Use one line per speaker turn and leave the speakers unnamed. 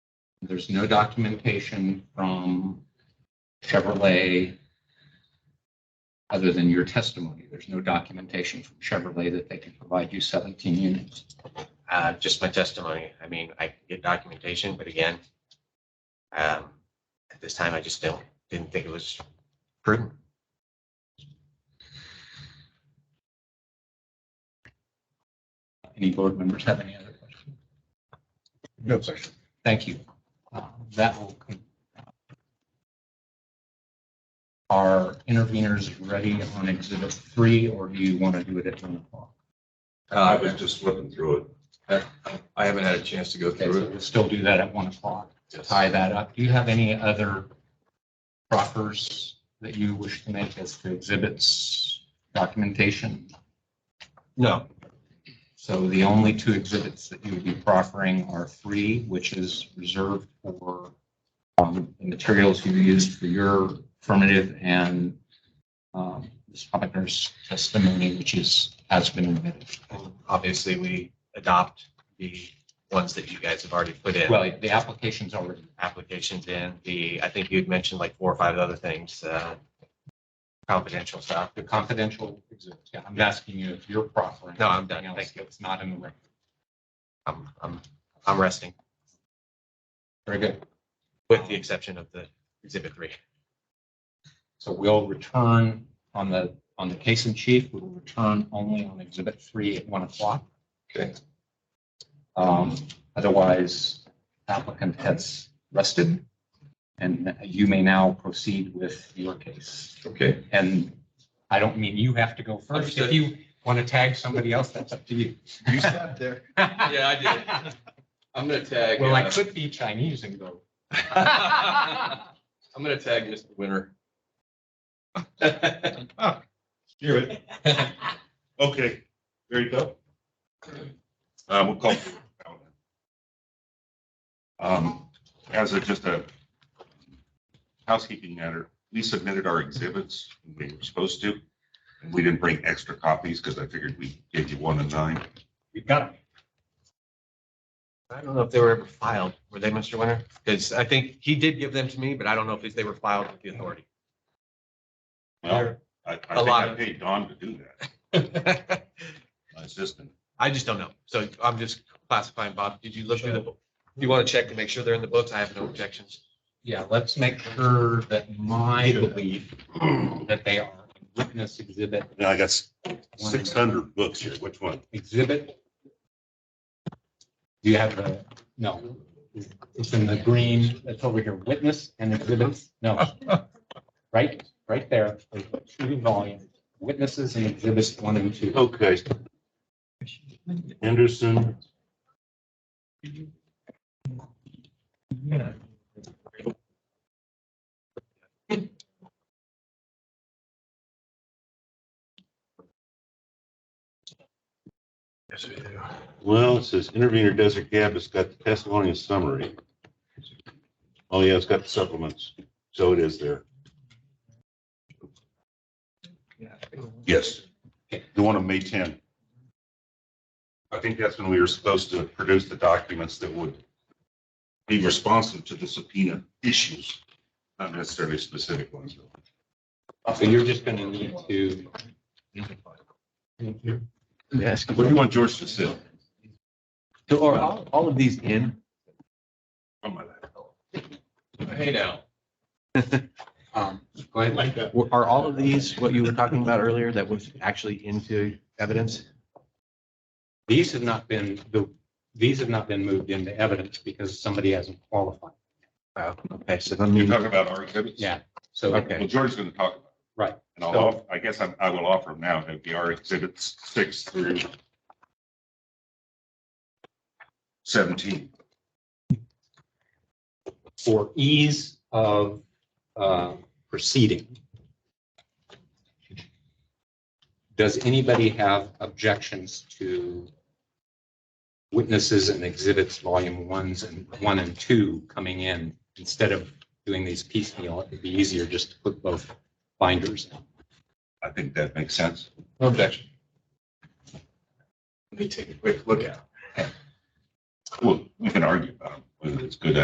there's no documentation from Chevrolet other than your testimony. There's no documentation from Chevrolet that they can provide you 17 units.
Uh, just my testimony. I mean, I can get documentation, but again, um, at this time, I just don't, didn't think it was prudent.
Any board members have any other questions?
No question.
Thank you. Uh, That will. con- Are interveners ready on exhibit three, or do you want to do it at one o'clock? Uh,
I was just looking through it. I- I haven't had a chance to go
Okay, so
through it.
we'll still do that at one o'clock.
Yes.
tie that up. Do you have any other proffers that you wish to make as to exhibits, documentation?
No.
So the only two exhibits that you would be proffering are three, which is reserved for um, the materials you used for your affirmative and um, Ms. Hoppener's testimony, which is, has been admitted.
And Obviously, we adopt the ones that you guys have already put in.
Well, the application's already,
applications in, the, I think you'd mentioned like four or five other things, uh, confidential stuff.
the confidential exhibits. Yeah, I'm asking you if you're proffering.
No, I'm done.
anything else
Thank you.
That's not in the record.
I'm, I'm, I'm resting,
Very good.
with the exception of the exhibit three.
So we'll return on the, on the case in chief, we will return only on exhibit three at one o'clock.
Okay.
Um, otherwise applicant has rested and you may now proceed with your case.
Okay,
And I don't mean you have to go first. If
Understood.
you want to tag somebody else, that's up to you.
You sat there.
Yeah,
I
did.
I'm gonna tag.
Well, I
uh,
could be Chinese and go.
I'm gonna tag Mr. Winter.
Hear it. Okay, there you go. Uh, we'll call. Um, as a, just a housekeeping matter, we submitted our exhibits, when we were supposed to. and We didn't bring extra copies because I figured we gave you one and nine.
You got it.
I don't know if they were ever filed, were they, Mr. Winter? Because I think he did give them to me, but I don't know if they were filed with the authority.
Well, I, I think
lot
I
of-
paid Don to do that, my assistant.
I just don't know. So I'm just classifying, Bob, did you look through the, book? you want to check to make sure they're in the books? I have no objections.
Yeah, let's make sure that my belief that they are witness exhibit,
Now I got six hundred books here. Which one?
exhibit. Do you have the, no, it's in the green, it's over here, witness and exhibits, no. Right, right there, there's the two volume, witnesses and exhibits one and two.
Okay. Anderson. Well, it says intervenor Desert Gap, it's got the testimony and summary. Oh, yeah, it's got the supplements, so it is there. Yes, the one on May 10. I think that's when we were supposed to produce the documents that would be responsive to the subpoena issues, not necessarily specific ones.
So you're just gonna need to.
Yes.
What do you want George to say?
So are all, all of these in?
Oh, my God.
Hey now.
um, Go ahead.
Like that.
Are all of these what you were talking about earlier that was actually into evidence?
These have not been, the, these have not been moved into evidence because somebody hasn't qualified.
Oh, okay, so let
You're
me,
talking about our exhibits?
Yeah, so.
Okay.
Well, George's going to talk about it.
Right.
And I'll, off- I guess I'm- I will offer them now, it'd be our exhibits six through 17.
for ease of uh, proceeding. Does anybody have objections to witnesses and exhibits, volume ones and one and two coming in? Instead of doing these piecemeal, it'd be easier just to put both binders. in.
I think that makes sense.
no objection. Let me take a quick look at it.
Well, we can argue about whether it's good